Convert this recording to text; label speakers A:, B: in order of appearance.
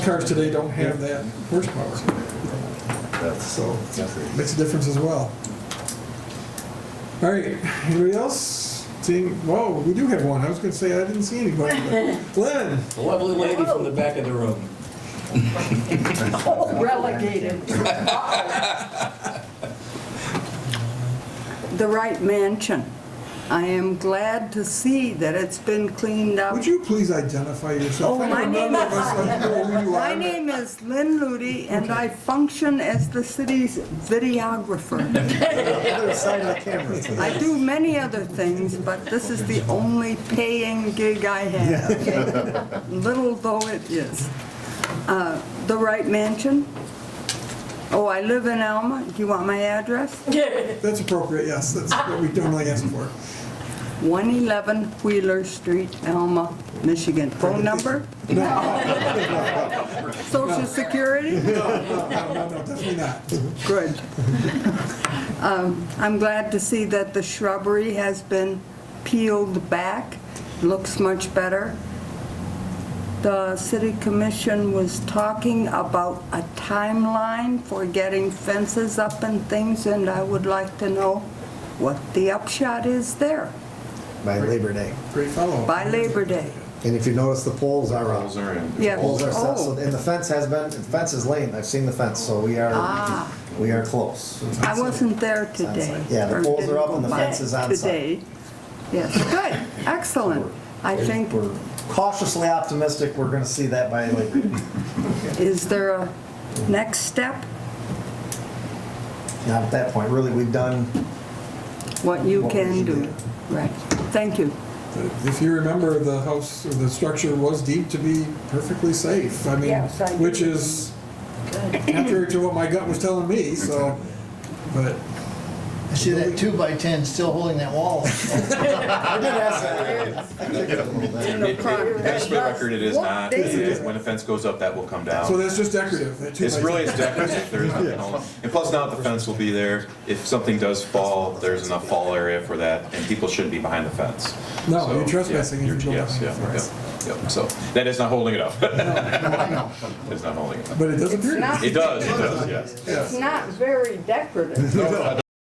A: Cars today don't have that horsepower,
B: That's
A: so makes a difference as well. All right, anybody else? Seeing, whoa, we do have one. I was gonna say I didn't see anybody. but- Glenn,
C: The lovely lady from the back of the room.
D: Relegated. The right mansion. I am glad to see that it's been cleaned up.
A: would you please identify yourself?
D: Oh,
A: I
D: my
A: don't
D: name
A: remember
D: is-
A: if I said who you
D: My
A: are.
D: name is Lynn Ludy, and I function as the city's videographer.
A: Other side of the camera. so-
D: I do many other things, but this is the only paying gig I have, little though it is. Uh, The right mansion. Oh, I live in Alma. Do you want my address?
A: That's appropriate, yes, that's what we normally ask for.
D: 111 Wheeler Street, Alma, Michigan. Phone number? Social Security?
A: No, no, definitely not.
D: Good. Um, I'm glad to see that the shrubbery has been peeled back, looks much better. The city commission was talking about a timeline for getting fences up and things, and I would like to know what the upshot is there
E: by Labor Day.
A: Great follow-up.
D: by Labor Day.
E: And if you notice, the poles are up.
B: are in.
D: Yeah.
E: Poles are set, so-
D: Oh.
E: and the fence has been, the fence is late, I've seen the fence, so we are,
D: Ah.
E: we are close.
D: I wasn't there today.
E: Yeah, the
D: or
E: poles
D: didn't
E: are up
D: go
E: and the
D: by
E: fence is on site.
D: Today, yes, good, excellent. I think,
E: We're cautiously optimistic we're gonna see that by Labor Day.
D: is there a next step,
E: Now, at that point, really, we've done,
D: what you
E: What we
D: can
E: should
D: do?
E: do.
D: Right, thank you.
A: If you remember, the house, or the structure was deemed to be perfectly safe. I mean,
F: Yes, I do.
A: which is contrary to what my gut was telling me, so, but,
G: I see that two by ten still holding that wall.
E: I did ask that. I kicked it a little bit.
D: No crime.
B: That's the record, it is
D: What
B: not.
D: day is
B: It-
D: it?
B: When the fence goes up, that will come
A: so
B: down.
A: that's just decorative. that two
B: It's
A: by
B: really,
A: ten.
B: it's decorative, there is nothing else. And plus now the fence will be there. If something does fall, there's enough fall area for that, and people shouldn't be behind the fence.
A: No,
B: So,
A: you're trespassing if
B: yeah,
A: you go
B: you're- Yes, yeah,
A: behind the fence.
B: yeah, yeah. So that is not holding it up. It's not holding it up.
A: But it does appear.
F: It's
A: to
F: not,
B: It does, it does, yes.
F: it's not very decorative.